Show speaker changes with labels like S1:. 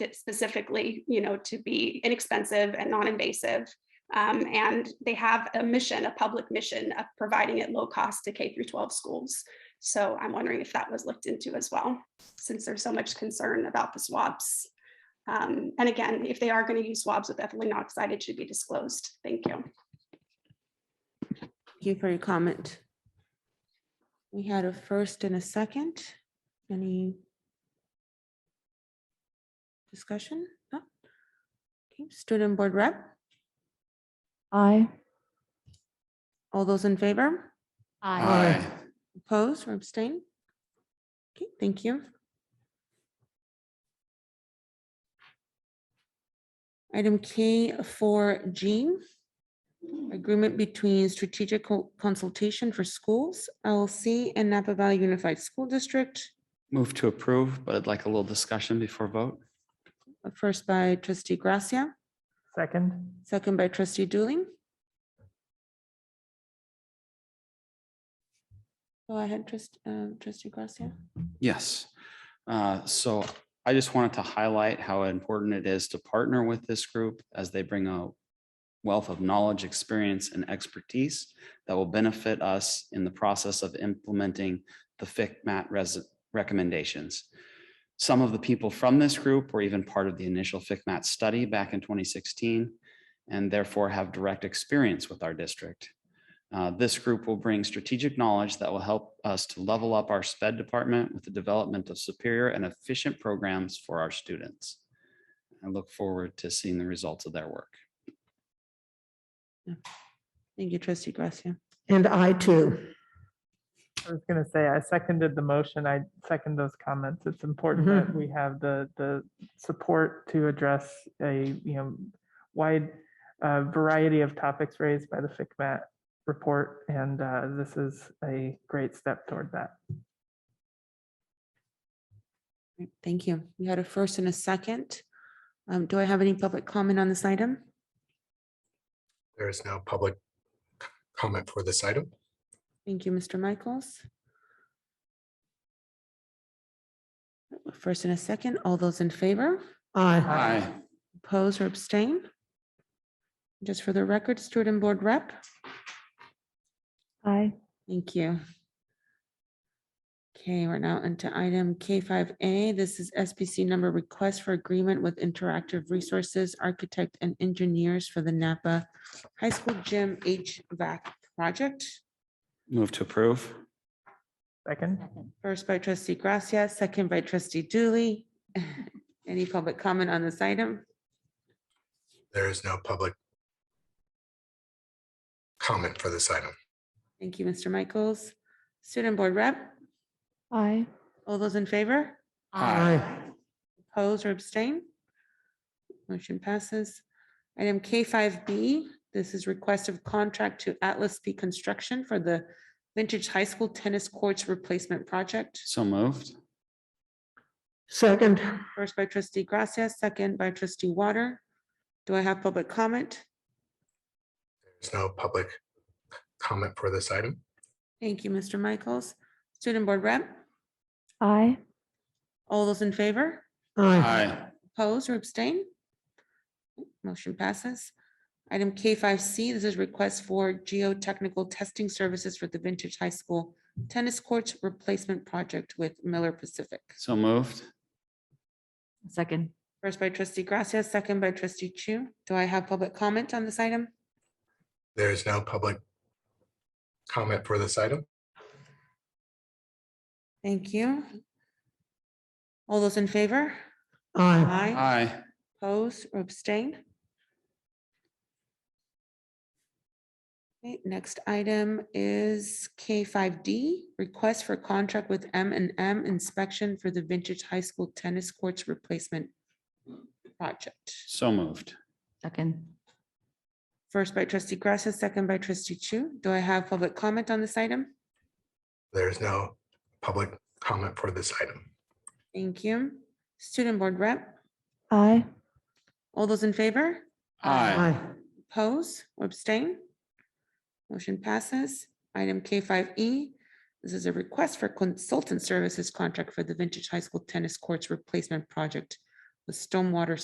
S1: spe- specifically, you know, to be inexpensive and non-invasive. Um, and they have a mission, a public mission of providing it low cost to K through 12 schools. So I'm wondering if that was looked into as well, since there's so much concern about the swabs. Um, and again, if they are going to use swabs with ethylene oxide, it should be disclosed. Thank you.
S2: Thank you for your comment. We had a first and a second. Any discussion? No? Okay, Student Board Rep,
S3: Aye.
S2: all those in favor,
S4: Aye.
S2: opposed or abstain? Okay, thank you. Item K for G, agreement between Strategic Co- Consultation for Schools, LLC, and Napa Valley Unified School District.
S4: Move to approve, but I'd like a little discussion before vote.
S2: First by trustee Gracia,
S5: Second.
S2: second by trustee Dooley. Go ahead, trust, um, trustee Gracia.
S4: Yes. Uh, So I just wanted to highlight how important it is to partner with this group as they bring a wealth of knowledge, experience, and expertise that will benefit us in the process of implementing the FICMAT res- recommendations. Some of the people from this group were even part of the initial FICMAT study back in 2016 and therefore have direct experience with our district. Uh, This group will bring strategic knowledge that will help us to level up our sped department with the development of superior and efficient programs for our students. I look forward to seeing the results of their work.
S2: Thank you, trustee Gracia.
S6: And I too.
S5: I was gonna say, I seconded the motion. I second those comments. It's important
S6: Mhm.
S5: that we have the, the support to address a, you know, wide uh, variety of topics raised by the FICMAT report, and uh, this is a great step toward that.
S2: Thank you. We had a first and a second. Um, do I have any public comment on this item?
S7: There is no public c- comment for this item.
S2: Thank you, Mr. Michaels. First and a second, all those in favor?
S6: Aye.
S5: Aye.
S2: Oppose or abstain? Just for the record, student board rep,
S3: Aye.
S2: thank you. Okay, we're now into item K5A. This is SBC number request for agreement with Interactive Resources Architect and Engineers for the Napa High School Gym HVAC project.
S4: Move to approve.
S5: Second?
S2: First by trustee Gracia, second by trustee Dooley. Any public comment on this item?
S7: There is no public comment for this item.
S2: Thank you, Mr. Michaels. Student board rep,
S3: Aye.
S2: all those in favor?
S6: Aye.
S2: Oppose or abstain? Motion passes. Item K5B, this is request of contract to Atlas P Construction for the Vintage High School Tennis Courts Replacement Project.
S4: So moved.
S6: Second.
S2: First by trustee Gracia, second by trustee Water. Do I have public comment?
S7: There's no public c- comment for this item.
S2: Thank you, Mr. Michaels. Student Board Rep,
S3: Aye.
S2: all those in favor?
S6: Aye.
S2: Oppose or abstain? Motion passes. Item K five C, this is request for geotechnical testing services for the Vintage High School Tennis Courts Replacement Project with Miller Pacific.
S4: So moved.
S3: Second.
S2: First by trustee Gracia, second by trustee Chu. Do I have public comment on this item?
S7: There is no public comment for this item.
S2: Thank you. All those in favor?
S6: Aye.
S2: Aye.
S4: Aye.
S2: Oppose or abstain? Okay, next item is K five D, request for contract with M and M inspection for the vintage high school tennis courts replacement project.
S4: So moved.
S3: Second.
S2: First by trustee Gracia, second by trustee Chu. Do I have public comment on this item?
S7: There is no public comment for this item.
S2: Thank you. Student board rep,
S3: Aye.
S2: all those in favor?
S6: Aye.
S2: Oppose or abstain? Motion passes. Item K five E. This is a request for consultant services contract for the Vintage High School Tennis Courts Replacement Project with with stormwater